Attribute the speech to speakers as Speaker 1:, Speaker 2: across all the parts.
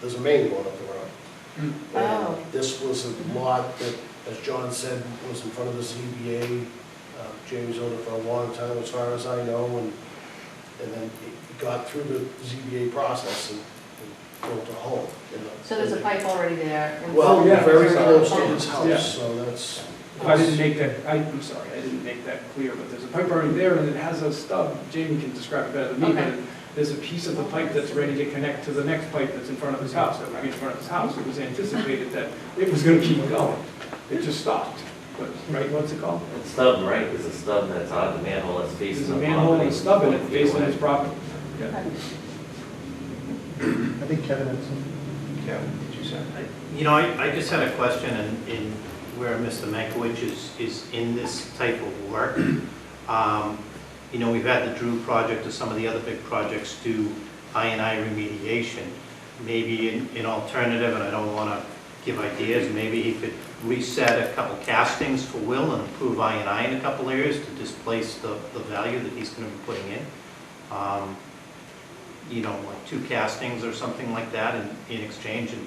Speaker 1: there's a main going up the road.
Speaker 2: Oh.
Speaker 1: And This was a lot that, as John said, was in front of the ZBA. Uh, Jamie's owned it for a long time, as far as I know, and, and then it got through the ZBA process and and built a home. in the-
Speaker 2: So there's a pipe already there? and-
Speaker 1: Well,
Speaker 3: Oh, yeah,
Speaker 1: very
Speaker 3: there's a-
Speaker 1: close to his
Speaker 3: Yeah.
Speaker 1: house, so that's,
Speaker 3: If I didn't make that, I, I'm sorry, I didn't make that clear, but there's a pipe already there and it has a stub. Jamie can describe it better than me, but
Speaker 2: Okay.
Speaker 3: there's a piece of the pipe that's ready to connect to the next pipe that's in front of his house. That ran in front of his house, it was anticipated that it was gonna keep going. It just stopped. But, right, what's it called?
Speaker 4: That stub, right, is a stub that's on the manhole that's
Speaker 3: There's
Speaker 4: facing the
Speaker 3: a
Speaker 4: property.
Speaker 3: manhole and a stub in it
Speaker 4: Twenty feet
Speaker 3: facing
Speaker 4: away.
Speaker 3: his property. Yeah.
Speaker 2: Okay.
Speaker 5: I think Kevin had some.
Speaker 6: You know, I, I just had a question in, in where Mr. Mankiewicz is, is in this type of work. Um, You know, we've had the Drew project or some of the other big projects do I and I remediation. Maybe an, an alternative, and I don't want to give ideas, maybe he could reset a couple castings for Will and improve I and I in a couple areas to displace the, the value that he's going to be putting in. Um, You know, like two castings or something like that in, in exchange, and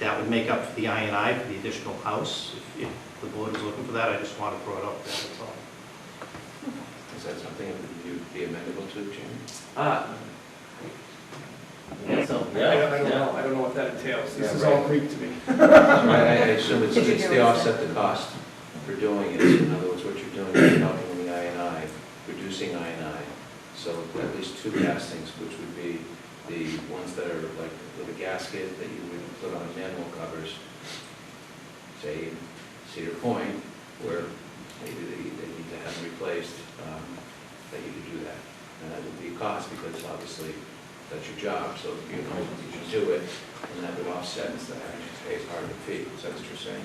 Speaker 6: that would make up for the I and I for the additional house. If if the board is looking for that, I just want to throw it up there, that's all.
Speaker 7: Is that something that you'd be amenable to, Jim?
Speaker 4: Ah. Yeah, so,
Speaker 3: I
Speaker 4: yeah,
Speaker 3: don't, I don't know, I don't know what that entails. This is all Greek to me.
Speaker 7: I I assume it's,
Speaker 2: Did you
Speaker 7: it's
Speaker 2: hear
Speaker 7: the
Speaker 2: what he said?
Speaker 7: offset the cost for doing it. In other words, what you're doing is you're helping with the I and I, reducing I and I. So at least two castings, which would be the ones that are like with a gasket that you would put on manual covers, say in Cedar Point, where maybe they, they need to have replaced, um, that you could do that. And that would be a cost because obviously that's your job, so you know, you should do it, and that would offset the action pays part of the fee, is that what you're saying?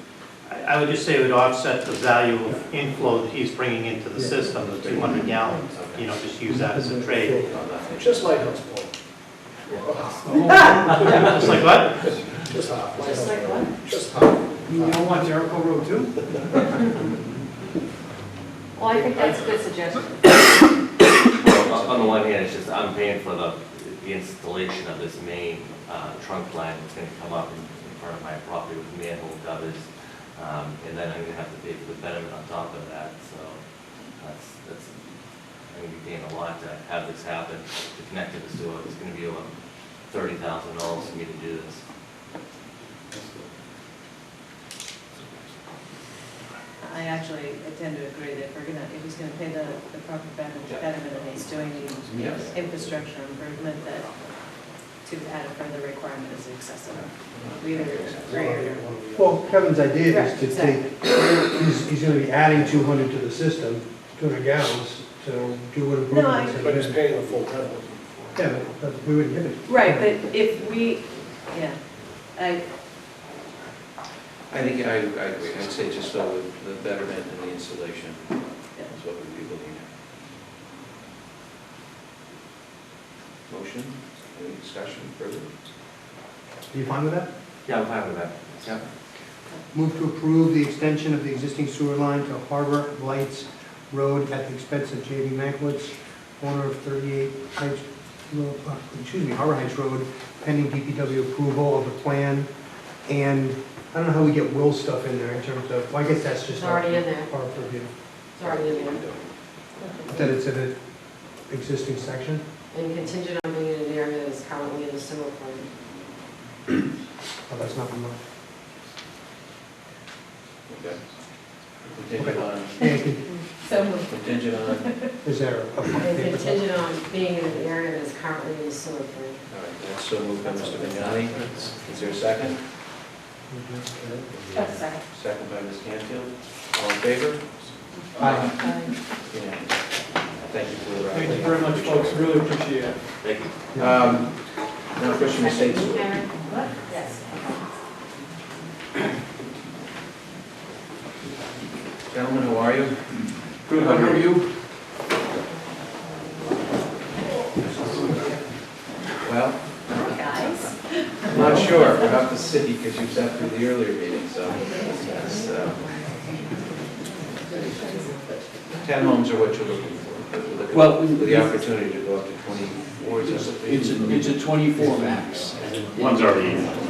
Speaker 6: I I would just say it would offset the value of inflow that he's bringing into the
Speaker 5: Yeah.
Speaker 6: system, the 200 gallons.
Speaker 7: Okay.
Speaker 6: You know, just use that as a trade.
Speaker 7: No, nothing.
Speaker 1: just Lighthouse Point.
Speaker 6: Just like what?
Speaker 1: Just half.
Speaker 2: Just like
Speaker 1: Lighthouse Point.
Speaker 2: what?
Speaker 1: Just half.
Speaker 3: You don't want Jericho Road too?
Speaker 2: Well, I think that's a good suggestion.
Speaker 4: well, on- on the one hand, it's just, I'm paying for the, the installation of this main, uh, trunk line that's gonna come up in, in front of my property with manhole covers. Um, and then I'm gonna have to pay for the betterment on top of that, so that's, that's, I'm gonna be paying a lot to have this happen, to connect to the sewer. It's gonna be about thirty thousand dollars for me to do this.
Speaker 8: I actually tend to agree that if we're gonna, if he's gonna pay the, the proper betterment, betterment and he's doing
Speaker 7: Yes.
Speaker 8: the infrastructure improvement, that to add a further requirement is excessive. We either agree or.
Speaker 5: Well, Kevin's idea is
Speaker 8: Correct,
Speaker 5: to take, he's, he's gonna be adding two hundred to the system, two hundred gallons, to do what
Speaker 8: No, I-
Speaker 5: improvements.
Speaker 1: But he's
Speaker 5: are there.
Speaker 1: paying the full penalty.
Speaker 5: Yeah, but- but we wouldn't give it.
Speaker 8: Right, but if we, yeah, I,
Speaker 7: I think I, I agree, I'd say just go with the betterment and the installation is what we'd be looking at. Motion, any discussion further?
Speaker 5: Are you fine with that?
Speaker 4: Yeah, I'm fine with that. Yeah.
Speaker 5: Move to approve the extension of the existing sewer line to Harbor Lights Road at the expense of J.B. Mankiewicz, owner of 38 Heights, uh, excuse me, Harbor Heights Road, pending DPW approval of the plan. And I don't know how we get Will's stuff in there in terms of, well, I guess that's just.
Speaker 2: It's already in there.
Speaker 5: Our purview.
Speaker 2: It's already in there.
Speaker 5: That it's in an existing section?
Speaker 2: And contingent on being in an area that is currently in the sewer plant.
Speaker 5: Oh, that's not much.
Speaker 7: Okay. Contingent on,
Speaker 2: So moved.
Speaker 7: contingent on, all right,
Speaker 5: Is there a?
Speaker 2: And contingent on being in an area that is currently in the sewer plant.
Speaker 7: that's so moved by Mr. Vignani. Is there a second?
Speaker 2: That's second.
Speaker 7: Second by Ms. Canfield. All in favor?
Speaker 5: Aye.
Speaker 7: Unanimous. Thank you for the.
Speaker 3: Thank you very much, folks, really appreciate it.
Speaker 4: Thank you.
Speaker 7: Um, Now, Christian Estates.
Speaker 2: Karen? Yes.
Speaker 7: Gentlemen, how are you?
Speaker 3: Good, how are you?
Speaker 7: Well,
Speaker 8: guys,
Speaker 7: I'm not sure. We're up to city because you sat through the earlier meeting, so. that's, uh, Ten homes are what you're looking for. You're looking
Speaker 9: Well,
Speaker 7: For the opportunity to go up to 24. is that what they-
Speaker 9: It's a, it's a 24 max.
Speaker 6: One's already in.